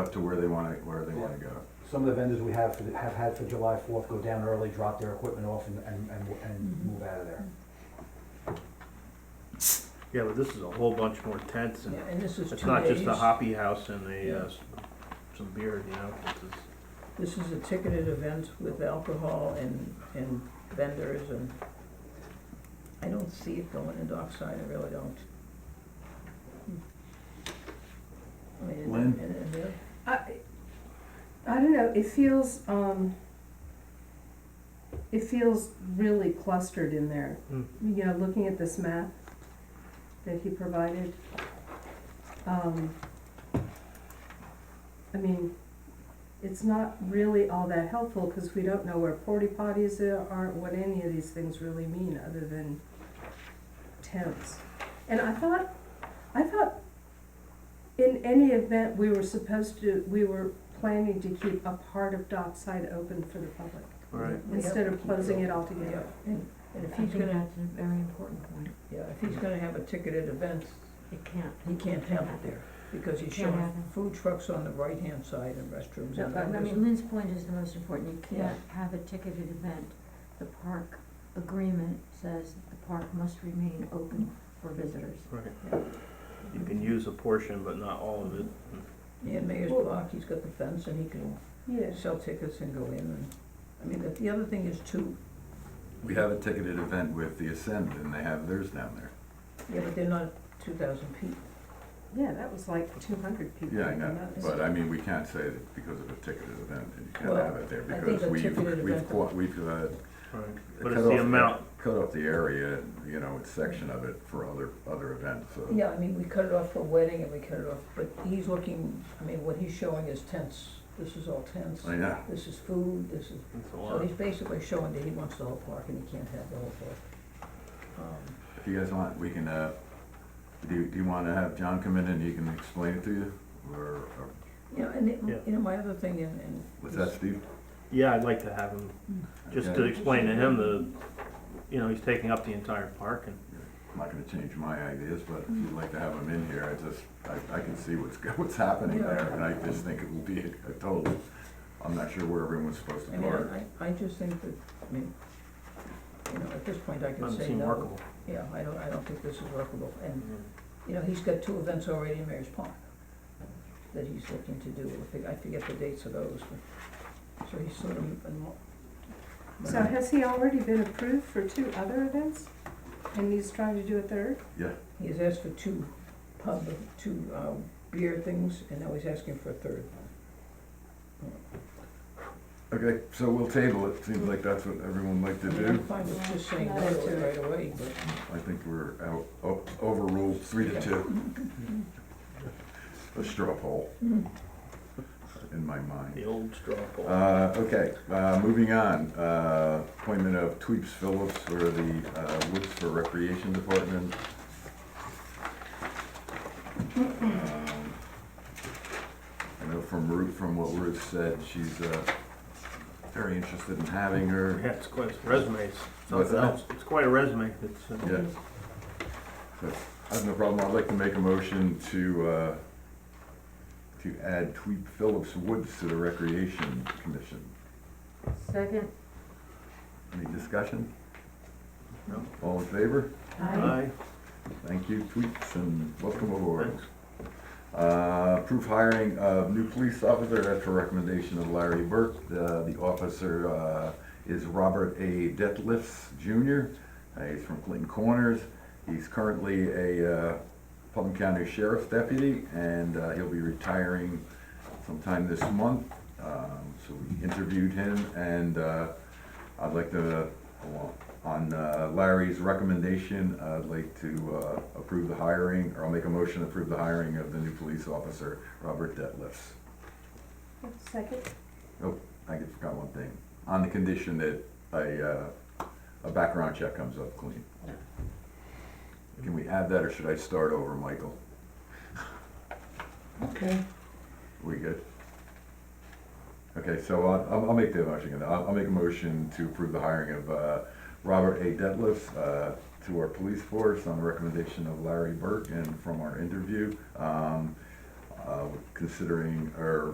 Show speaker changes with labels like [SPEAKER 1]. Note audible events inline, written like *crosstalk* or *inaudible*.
[SPEAKER 1] up to where they wanna, where they wanna go.
[SPEAKER 2] Some of the vendors we have, for the- have had for July fourth go down early, drop their equipment off and, and, and, and move out of there.
[SPEAKER 3] Yeah, but this is a whole bunch more tents and
[SPEAKER 4] Yeah, and this is two days.
[SPEAKER 3] it's not just a hoppy house and
[SPEAKER 4] Yeah.
[SPEAKER 3] a, uh, s- some beer, you know, it's just-
[SPEAKER 4] This is a ticketed event with alcohol and, and vendors and I don't see it going in Dockside, I really don't. I mean, and-
[SPEAKER 1] Lynn?
[SPEAKER 4] and- and they're-
[SPEAKER 5] I, I don't know, it feels, um, it feels really clustered in there.
[SPEAKER 3] Hmm.
[SPEAKER 5] You know, looking at this map that he provided, um, I mean, it's not really all that helpful, cause we don't know where porta potties are, what any of these things really mean, other than tents. And I thought, I thought in any event, we were supposed to, we were planning to keep a part of dockside open for the public,
[SPEAKER 3] right.
[SPEAKER 4] Yep.
[SPEAKER 5] instead of closing it all together.
[SPEAKER 4] And, and if
[SPEAKER 6] I
[SPEAKER 4] he's
[SPEAKER 6] think
[SPEAKER 4] gonna,
[SPEAKER 6] that's a very important point.
[SPEAKER 4] yeah, if he's gonna have a ticketed event,
[SPEAKER 6] It can't.
[SPEAKER 4] he can't have it there because he's
[SPEAKER 6] Can't
[SPEAKER 4] showing
[SPEAKER 6] have it.
[SPEAKER 4] food trucks on the right-hand side and restrooms
[SPEAKER 6] No,
[SPEAKER 4] and
[SPEAKER 6] but, I
[SPEAKER 4] vendors.
[SPEAKER 6] mean, Lynn's point is the most important. You
[SPEAKER 4] Yeah.
[SPEAKER 6] can't have a ticketed event. The park agreement says the park must remain open for visitors.
[SPEAKER 3] Right. You can use a portion, but not all of it.
[SPEAKER 4] And Mayor's
[SPEAKER 5] Well-
[SPEAKER 4] Block, he's got the fence and he can
[SPEAKER 5] Yeah.
[SPEAKER 4] sell tickets and go in and, I mean, the, the other thing is too,
[SPEAKER 1] We have a ticketed event with the Ascend and they have theirs down there.
[SPEAKER 4] yeah, but they're not two thousand people.
[SPEAKER 5] Yeah, that was like two hundred people.
[SPEAKER 1] Yeah, I
[SPEAKER 5] at the
[SPEAKER 1] know,
[SPEAKER 5] most.
[SPEAKER 1] but uh, I mean, we can't say that because of a ticketed event that you can't
[SPEAKER 4] Well,
[SPEAKER 1] have it there
[SPEAKER 4] I think
[SPEAKER 1] because
[SPEAKER 4] a
[SPEAKER 1] we've,
[SPEAKER 4] ticketed
[SPEAKER 1] we've,
[SPEAKER 4] event-
[SPEAKER 1] qua- we've, uh,
[SPEAKER 3] Right. But
[SPEAKER 1] cut
[SPEAKER 3] it's the
[SPEAKER 1] off-
[SPEAKER 3] amount,
[SPEAKER 1] Cut off the area, you know, it's section of it for other, other events, so.
[SPEAKER 4] Yeah, I mean, we cut it off for wedding and we cut it off, but he's looking, I mean, what he's showing is tents, this is all tents.
[SPEAKER 1] I know,
[SPEAKER 4] This is food, this is,
[SPEAKER 3] it's a
[SPEAKER 4] so
[SPEAKER 3] lot.
[SPEAKER 4] he's basically showing that he wants the whole park and he can't have the whole park. Um,
[SPEAKER 1] if you guys want, we can, uh, do, you- do you wanna have John come in and he can explain it to you? Or, or,
[SPEAKER 4] You know, and, it-
[SPEAKER 3] Yeah.
[SPEAKER 4] you know, my other thing and, and.
[SPEAKER 1] was that Steve?
[SPEAKER 3] Yeah, I'd like to have him, just to
[SPEAKER 1] Okay.
[SPEAKER 3] explain to him the, you know, he's taking up the entire park and,
[SPEAKER 1] I'm not gonna change my ideas, but if you'd like to have him in here, I just, I, I can see what's, *laughs* go- what's happening there, and I just think it will be a a total, I'm not sure where everyone's supposed to
[SPEAKER 4] I mean,
[SPEAKER 1] park.
[SPEAKER 4] I, I just think that, I mean, you know, at this point I can
[SPEAKER 3] doesn't
[SPEAKER 4] say
[SPEAKER 3] seem
[SPEAKER 4] no.
[SPEAKER 3] workable.
[SPEAKER 4] Yeah, I don't, I don't think this is workable and You
[SPEAKER 3] Yeah.
[SPEAKER 4] know, he's got two events already in Mary's Park that he's looking to do. I think- I forget the dates of those, but, so he's sort of. been mo-
[SPEAKER 5] So has he already been approved for two other events? And he's trying to do a third?
[SPEAKER 1] Yeah,
[SPEAKER 4] He has asked for two pub, two uh, beer things, and now he's asking for a third.
[SPEAKER 1] okay, so we'll table it, seems like that's what everyone liked to
[SPEAKER 4] I mean, I'm
[SPEAKER 1] do.
[SPEAKER 4] fine with just saying no
[SPEAKER 5] Yeah.
[SPEAKER 4] right away, but.
[SPEAKER 1] I think we're out, o- overruled, three to two. A straw poll, in my mind.
[SPEAKER 3] The old straw poll.
[SPEAKER 1] Uh, okay, uh, moving on, uh, appointment of Tweeps Phillips for the, uh, Woods for Recreation Department. Um, I know from Ruth, from what Ruth said, she's, uh, very interested in having her,
[SPEAKER 3] Yeah, it's quite, a resume, it's
[SPEAKER 1] What's
[SPEAKER 3] something
[SPEAKER 1] that?
[SPEAKER 3] else. It's quite a resume. It's, uh,
[SPEAKER 1] yeah. So, I have no problem, I'd like to make a motion to, uh, to add Tweep Phillips Woods to the Recreation Commission.
[SPEAKER 6] Second,
[SPEAKER 1] Any discussion?
[SPEAKER 3] No.
[SPEAKER 1] All in favor?
[SPEAKER 3] aye,
[SPEAKER 1] Thank you, Tweeps, and welcome aboard.
[SPEAKER 3] thanks.
[SPEAKER 1] Uh, approve hiring of new police officer after recommendation of Larry Burke. The, the officer, uh, is Robert A. Detlefs Jr. Uh, He's from Clinton Corners. He's currently a, uh, Putnam County Sheriff's Deputy, and, uh, he'll be retiring sometime this month. Um, so we interviewed him, and, uh, I'd like to, uh, on uh, Larry's recommendation, I'd like to uh, approve the hiring, or I'll make a motion to approve the hiring of the new police officer, Robert Detlefs.
[SPEAKER 5] Second?
[SPEAKER 1] I just forgot one thing, on the condition that a, uh, a background check comes up clean. Can we add that, or should I start over, Michael?
[SPEAKER 2] Okay.
[SPEAKER 1] We good? Okay, so I'll- I'll, I'll make the motion, again. I'll, I'll make a motion to approve the hiring of, uh, Robert A. Detlef, uh, to our police force on the recommendation of Larry Burke and from our interview, um, uh, considering, or